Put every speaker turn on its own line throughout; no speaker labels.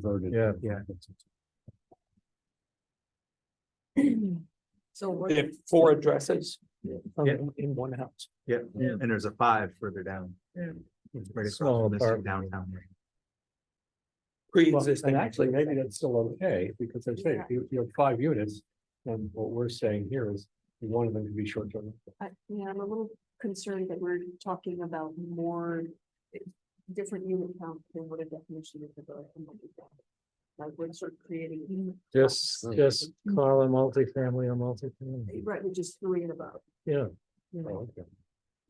Converted.
Yeah.
Yeah.
So we're.
They have four addresses.
Yeah.
um,
Yeah.
In one house.
Yeah,
Yeah.
and there's a five further down.
Yeah.
It's Right across
Small
from this
apartment.
downtown.
Well,
Pre-existing.
And actually, maybe that's still okay, because they're saying,
Yeah.
you, you have five units, and what we're saying here is, we wanted them to be short-term. rentals.
I- Yeah, I'm a little concerned that we're talking about more eh, different unit count than what a definition is of a multifamily. Like we're sort of creating,
Just,
Mm.
just call a multifamily a multifamily.
right, which is three and above.
Yeah,
you know.
Oh, okay.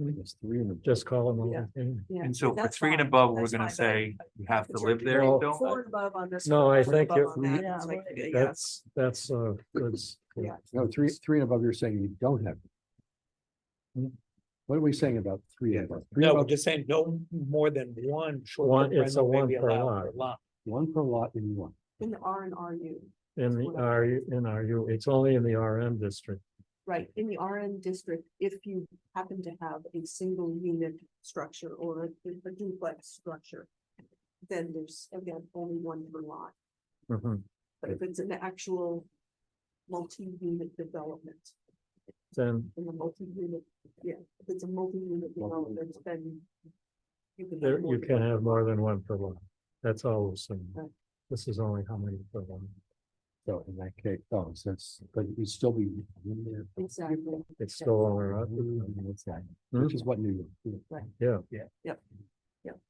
I think it's three in a-
just call them
Yeah.
multifamily.
Yeah,
And so for
that's
three and
fine.
above, we're
That's
gonna
fine, but I-
say you have to
it's
live there
Well-
still?
Four and above on this.
No, I
four and
think
above
if
on
we-
that,
Yeah,
it's
like,
like-
yeah.
That's, that's uh good. s- good.
Yeah.
No, three, three and above, you're saying you don't have.
Hmm.
What are we saying about three and above? Three
No,
above,
we're just saying no more than one
One-
short-term
it's a
rental may
one
be
per
allowed
lot.
per lot.
One per lot in one.
In the R and RU,
In the R, in RU, it's only in the RM district.
right, in the RM district, if you happen to have a single unit structure or a a duplex structure. Then there's again only one per lot.
Mhm.
But if it's an actual multi-unit development,
Then
in the multi-unit, yeah, if it's a multi-unit development, then. you can have
there,
more
you
than
can
one.
have more than one per lot. That's all we're saying.
Right.
This is only how many per lot.
So in that case, oh, so it's, but you'd still be. in there.
Exactly,
It's still only, right?
What's that? Which is what New York.
yeah,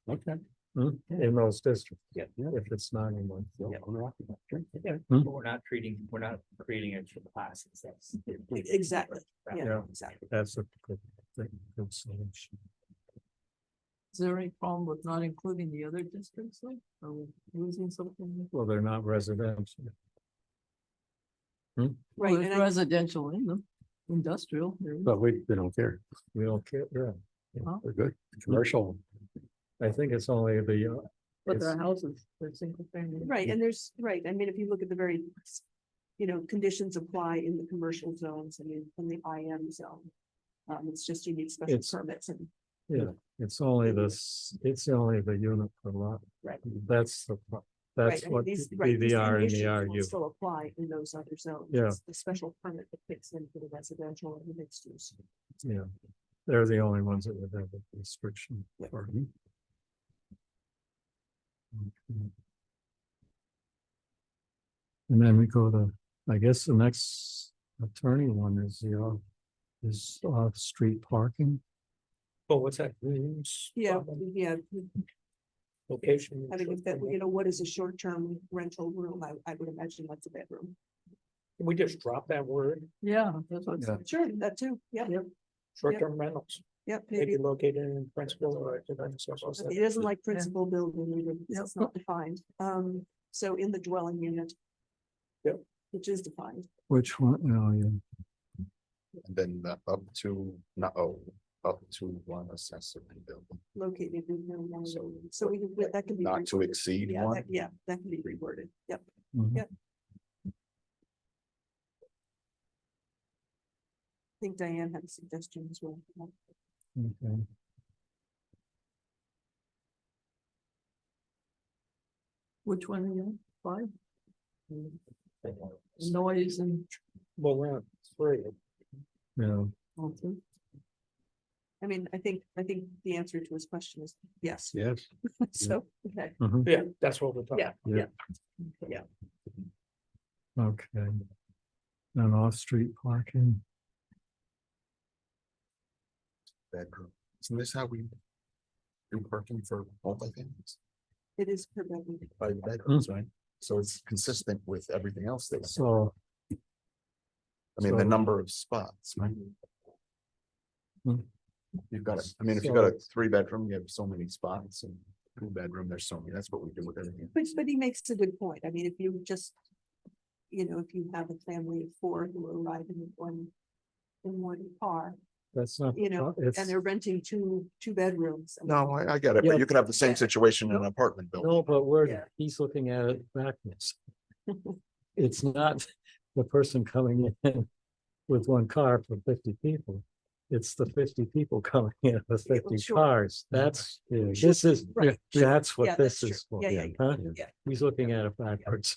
Okay.
mm, in those districts.
Yeah.
If it's not in one.
Yeah.
Hmm.
But We're not treating, we're not creating extra classes. That's.
exactly, yeah,
Yeah.
exactly.
That's a good, good good solution.
Is there any problem with not including the other districts, like, are we losing something?
Well, they're not residential.
Right,
There's
and I,
Residential in them, industrial, there is.
But we, they don't care.
We don't care, yeah.
Huh?
They're good. Commercial.
I think it's only the, uh,
but there
it's-
are houses, they're single family.
right, and there's, right, I mean, if you look at the very. You know, conditions apply in the commercial zones and in, in the IM zone. Um, it's just you need special
It's-
permits and,
it's only this, it's only the unit per lot.
Right.
That's the, pro-
right,
that's
I mean,
what
these,
the
right, these
the R and the
conditions will
RU.
Still apply in those other zones.
Yeah.
It's The special permit that fits in for the residential and the mixed use.
Yeah, they're the only ones that would have a restriction for.
Mm-hmm.
Okay. Mm-hmm. And then we go to, I guess the next attorney one is the, off- is off-street parking.
Oh, what's that? Rooms,
Yeah,
apartment,
yeah,
Location.
I mean, if that,
short-term
you know, what is a short-term rental room? I, I would imagine that's a bedroom.
rental. Can we just drop that word,
Yeah, that's what,
Yeah.
Sure, that too, yeah,
short-term rentals,
yeah, maybe.
maybe located in principal or. in social
It
setting.
isn't like principal building, either, because
Yep.
it's not defined. Um, so in the dwelling unit.
Yep.
Which is defined,
Which one? Oh, yeah.
And then the up to, no, oh, up to one accessory building,
located in the dwelling unit. so we, can- that can be. reworded.
exceed
Yeah, that- yeah, that can be reworded, yep.
Mhm.
I think Diane had a suggestion as well.
Okay.
which one again, five, noise and.
Well, we're on three.
Yeah,
I mean, I think, I think the answer to his question is yes,
Yes.
so, okay,
mhm,
Yeah, that's what we're talking.
yeah,
Yeah.
yeah.
okay. And off-street parking,
bedroom. Isn't this how we do parking for multifamilies
It is per bedroom.
by bedrooms, right? So it's consistent with everything else that's,
so.
I mean, the
So-
number of spots, right? Mm-hmm.
Hmm.
You've got, it. I mean, if you've got a three bedroom, you have so many spots and two bedroom, there's so many. That's what we do with everything.
But, but he makes a good point. I mean, if you just, you know, if you have a family of four who arrive in one, in one car,
That's not.
You know,
it's-
and they're renting two, two bedrooms. I mean,
No, I, I get it,
Yeah.
but you could have the same situation in an apartment building.
No, but
Yeah.
we're, he's looking at it backwards. It's not the person coming in with one car for fifty people. it's the fifty people coming in, the fifty
sure.
cars, that's,
Yeah.
this is,
Right, sure.
that's
Yeah,
what this
that's true.
is for.
Yeah, yeah,
huh?
yeah.
He's looking at it backwards.